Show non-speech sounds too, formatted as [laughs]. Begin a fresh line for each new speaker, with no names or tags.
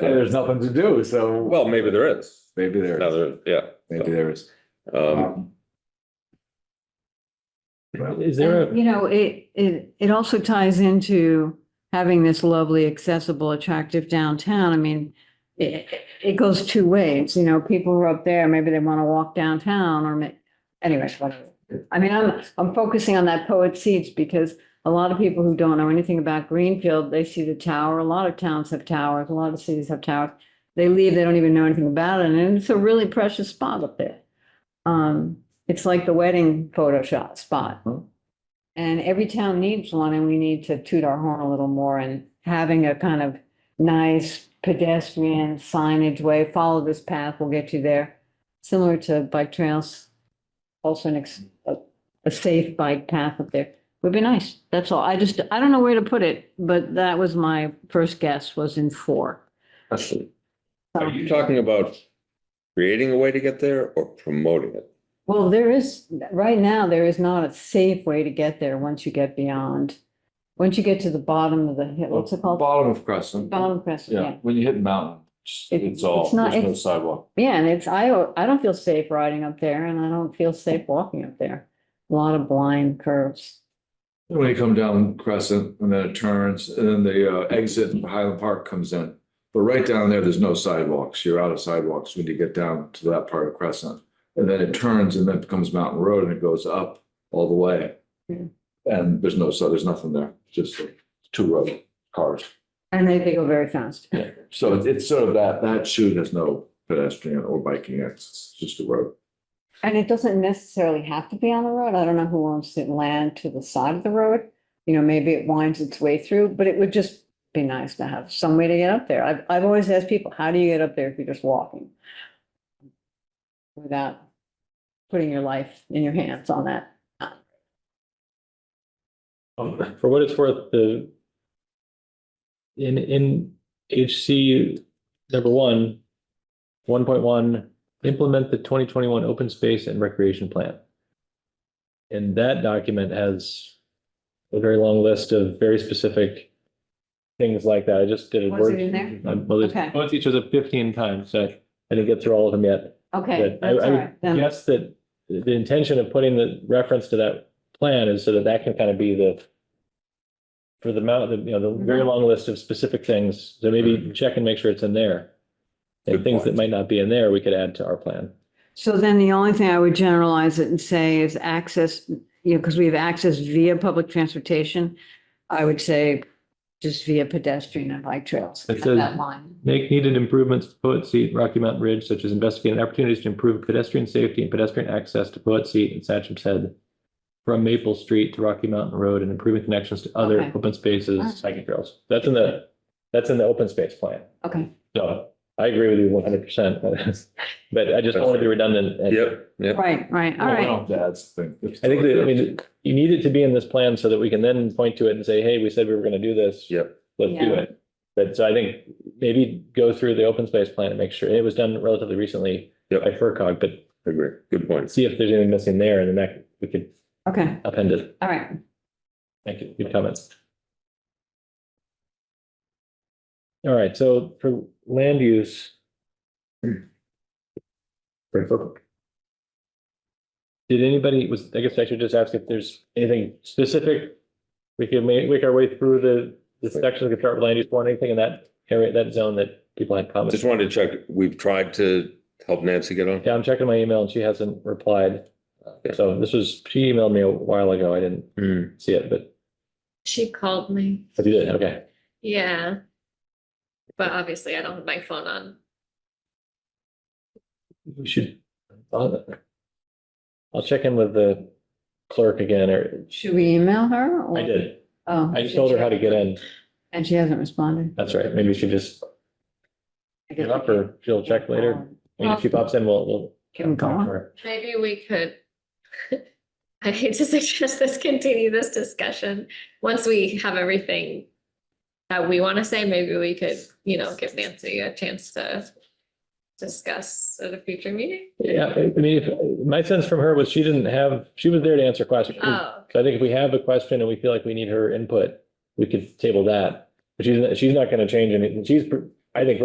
There's nothing to do, so
Well, maybe there is.
maybe there,
No,
is.
there, yeah.
maybe there is.
Um,
Um,
Is there a,
You know, it, it, it also ties into having this lovely, accessible, attractive downtown. I mean, it, it goes two ways, you know, people who are up there, maybe they want to walk downtown or ma- anyways, whatever. I mean, I'm, I'm focusing on that poet seats because a lot of people who don't know anything about Greenfield, they see the tower. A lot of towns have towers, a lot of cities have towers. They leave, they don't even know anything about it, and it's a really precious spot up there. Um, it's like the wedding Photoshop spot. And every town needs one and we need to toot our horn a little more and having a kind of nice pedestrian signage way, follow this path, we'll get you there. Similar to bike trails, also an, ex- a, a safe bike path up there would be nice. That's all. I just, I don't know where to put it, but that was my first guess was in four.
are you talking about creating a way to get there or promoting it?
Well, there is, right now, there is not a safe way to get there once you get beyond, once you get to the bottom of the hill, what's it called?
Bottom of Crescent.
Bottom Crescent, yeah.
Yeah, when you hit mountain, it's-
It-
it's all,
it's not-
there's no
it's-
sidewalk.
Yeah, and it's, I, I don't feel safe riding up there and I don't feel safe walking up there. A lot of blind curves.
When you come down Crescent and then it turns and then the uh, exit in Highland Park comes in. But right down there, there's no sidewalks. You're out of sidewalks when you get down to that part of Crescent. And then it turns and then it becomes Mountain Road and it goes up all the way.
Yeah.
And there's no, so there's nothing there, just like two road cars.
And they, they go very fast.
So it's- it's sort of that, that shoot has no pedestrian or biking access, it's just a road.
And it doesn't necessarily have to be on the road. I don't know who owns the land to the side of the road. You know, maybe it winds its way through, but it would just be nice to have some way to get up there. I've, I've always asked people, how do you get up there if you're just walking? Without putting your life in your hands on that.
um, for what it's worth, the in, in HC number one, one point one, implement the twenty twenty-one open space and recreation plan. And that document has a very long list of very specific things like that. I just did a
Was
word.
it in there?
I- Well,
Okay.
there's- both each was a fifteen times, so I didn't get through all of them yet.
Okay,
But I,
that's all
I
right.
would
Then
guess that the intention of putting the reference to that plan is so that that can kind of be the for the amount, the, you
Mm-hmm.
know, the very long list of specific things, so maybe
Mhm.
check and make sure it's in there.
Good
And things
point.
that might not be in there, we could add to our plan.
So then the only thing I would generalize it and say is access, you know, because we have access via public transportation. I would say just via pedestrian and bike trails.
It
Have
says-
That line.
Make needed improvements to Poet Seat, Rocky Mountain Ridge, such as investigating opportunities to improve pedestrian safety and pedestrian access to Poet Seat and Satcham's Head from Maple Street to Rocky Mountain Road and improving connections to other
Okay.
open
Alright.
spaces, hiking trails. That's in the, that's in the open space plan.
Okay,
So I agree with you one hundred percent, [laughs] but I just don't want to be redundant. and-
Yep, yep.
right, right, all
No,
right.
no, That's the thing. It's-
I think that, I mean, you need it to be in this plan so that we can then point to it and say, hey, we said we were going to do this.
Yep.
Let's do
Yeah.
it. But so I think maybe go through the open space plan and make sure, it was done relatively recently
Yep.
by FERCog, but
Agree. Good points.
see if there's anything missing there and then that, we could
Okay,
append it.
all right.
Thank you. Good comments. All right, so for land use. Great book. Did anybody, was, I guess I should just ask if there's anything specific? We could make, make our way through the, the section, we could start with land use one, anything in that area, that zone that people had comments.
Just wanted to check, we've tried to help Nancy get on.
Yeah, I'm checking my email and she hasn't replied. So this was, she emailed me a while ago. I didn't
Hmm.
see it, but
She called me,
if you did, okay.
yeah. But obviously I don't have my phone on.
We should. I'll I'll check in with the clerk again, or
Should we email her? or-
I did.
Oh.
I told her how to get in.
And she hasn't responded.
That's right. Maybe she just give up or she'll check later. I mean, if she pops in, we'll, we'll.
Um, Can we go
talk to
on?
her.
Maybe we could. [laughs] I hate to suggest this, continue this discussion. Once we have everything that we want to say, maybe we could, you know, give Nancy a chance to discuss at a future meeting.
Yeah, I I mean, if, my sense from her was she didn't have, she was there to answer questions. So
Oh,
I think if we have a question and we feel like we need her input, we could table that. But she's, she's not going to change anything. She's, I think,